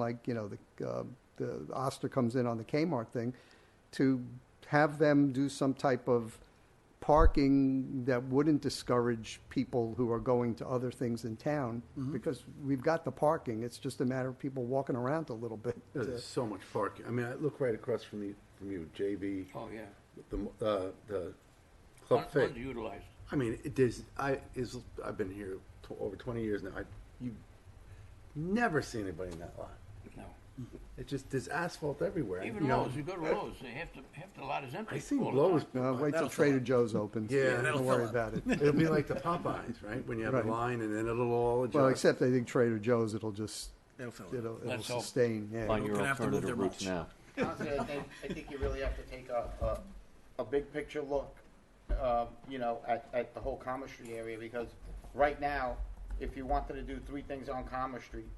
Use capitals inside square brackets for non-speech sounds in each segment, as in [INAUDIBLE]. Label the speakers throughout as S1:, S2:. S1: like, you know, the, uh, the Oster comes in on the Kmart thing, to have them do some type of parking that wouldn't discourage people who are going to other things in town, because we've got the parking, it's just a matter of people walking around a little bit.
S2: There's so much parking. I mean, I look right across from the, from you, JB,
S3: Oh, yeah.
S2: the, uh, the
S3: Un-
S2: Club Fit.
S3: Underutilized.
S2: I mean, it is, I, is, I've been here tw- over twenty years now. I, you never see anybody in that lot.
S3: No.
S2: It just, there's asphalt everywhere. you
S3: Even
S2: know.
S3: Lowe's, you go to Lowe's, they have to, half the lot is empty.
S2: I seen
S3: all the time.
S2: Lowe's.
S1: [LAUGHS] Uh, wait till
S2: that'll
S1: Trader Joe's opens.
S2: Yeah,
S1: Don't
S2: that'll
S1: worry about it.
S2: [LAUGHS] It'll be like the Popeyes, right? When you have
S1: Right.
S2: a line and then it'll all adjust.
S1: Well, except I think Trader Joe's, it'll just,
S4: They'll fill it.
S1: it'll, it'll
S3: Let's hope.
S1: sustain,
S5: on
S1: yeah.
S5: your
S4: gonna have to move
S5: alternative
S4: their
S5: routes
S4: routes.
S5: now.
S6: Honestly, I think, I think you really have to take a, a, a big picture look, um, you know, at, at the whole Commerce Street area, because right now, if you wanted to do three things on Commerce Street,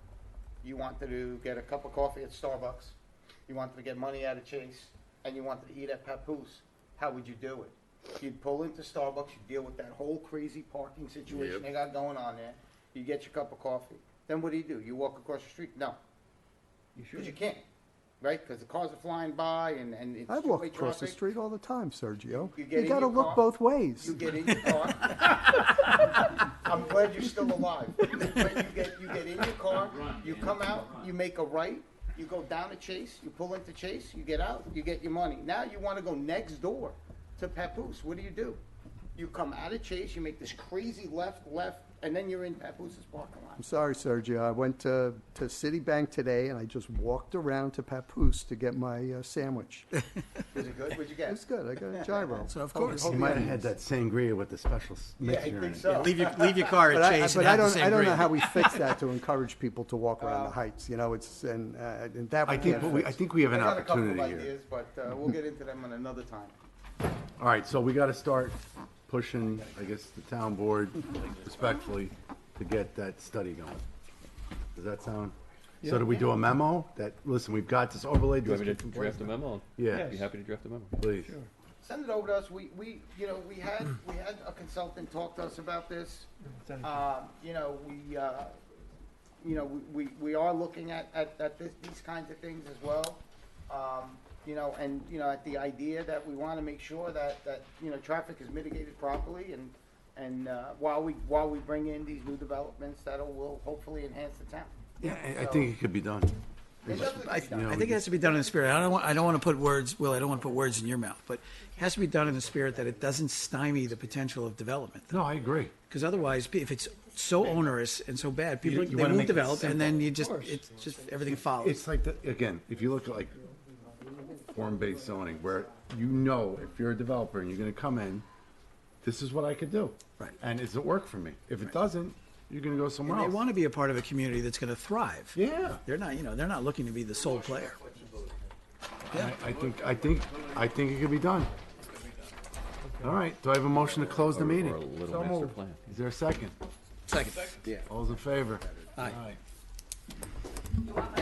S6: you wanted to get a cup of coffee at Starbucks, you wanted to get money out of Chase, and you wanted to eat at Papoose, how would you do it? You'd pull into Starbucks, you'd deal with that whole crazy parking situation
S2: Yep.
S6: they got going on there, you get your cup of coffee, then what do you do? You walk across the street? No,
S3: You
S6: because you
S3: should.
S6: can't, right? Because the cars are flying by and, and it's
S1: I walk
S6: two-way
S1: across the
S6: traffic.
S1: street all the time, Sergio.
S6: You get
S1: You
S6: in
S1: gotta
S6: your
S1: look
S6: car,
S1: both ways.
S6: You get in your car. [LAUGHS] I'm glad you're still alive. But you get, you get in your car, you come out, you make a right, you go down to Chase, you pull into Chase, you get out, you get your money. Now you want to go next door to Papoose. What do you do? You come out of Chase, you make this crazy left, left, and then you're in Papoose's parking lot.
S1: I'm sorry, Sergio. I went to, to Citibank today and I just walked around to Papoose to get my uh, sandwich. It
S6: Is it good? What'd you get?
S1: was good. I got a gyro.
S4: So of
S1: Hope-
S4: course.
S1: hope
S2: You
S1: you
S2: might
S1: had
S2: have had
S1: it.
S2: that sangria with the special s-
S6: Yeah,
S2: mixture
S6: I
S2: in
S6: think
S2: it.
S6: so.
S4: Leave your, leave your car
S1: But
S4: at
S1: I,
S4: Chase
S1: but
S4: and
S1: I
S4: have the
S1: don't, I
S4: same
S1: don't know
S4: grade.
S1: how we fix that to encourage people to walk around the heights. You know, it's, and, uh, and that
S2: I
S1: we
S2: think,
S1: can't
S2: what we,
S1: fix.
S2: I think we have
S6: I
S2: an
S6: got a couple of
S2: opportunity here.
S6: ideas, but uh, we'll get into them on another time.
S2: All right, so we gotta start pushing, I guess, the town board respectfully to get that study going. Does that sound? So do we do a memo that, listen, we've got this overlay
S5: You want me to
S2: district in place
S5: draft a memo?
S2: Yeah.
S5: Be happy to draft a memo.
S2: Please.
S6: send it over to us. We, we, you know, we had, we had a consultant talk to us about this. Um, you know, we, uh, you know, we- we, we are looking at, at, at this, these kinds of things as well. Um, you know, and, you know, at the idea that we wanna make sure that, that, you know, traffic is mitigated properly and, and, uh, while we, while we bring in these new developments that'll, will hopefully enhance the town.
S2: Yeah, I- I think it could be done.
S6: It doesn't-
S4: I,
S2: know,
S4: I
S2: we
S4: think it has to be done in the spirit. I don't want, I don't want to put words, Will, I don't want to put words in your mouth, but it has to be done in the spirit that it doesn't stymie the potential of development.
S2: No, I agree.
S4: Because otherwise, pe- if it's so onerous and so bad, people,
S2: you
S4: they
S2: wanna
S4: won't
S2: make it
S4: develop and
S2: simple.
S4: then you just, it's just, everything follows.
S2: It's like, the- again, if you look at like form-based zoning, where you know if you're a developer and you're gonna come in, this is what I could do.
S4: Right.
S2: And does it work for me? If it doesn't, you're gonna go somewhere
S4: They
S2: else.
S4: want to be a part of a community that's going to thrive.
S2: Yeah.
S4: They're not, you know, they're not looking to be the sole player.
S2: I, I think, I think, I think it could be done. All right, do I have a motion to close the
S5: Or- or a
S2: meeting?
S5: little
S2: So
S5: master
S2: moved.
S5: plan.
S2: Is there a second?
S4: Second.
S2: All's in favor?
S4: Aye.
S2: Aye.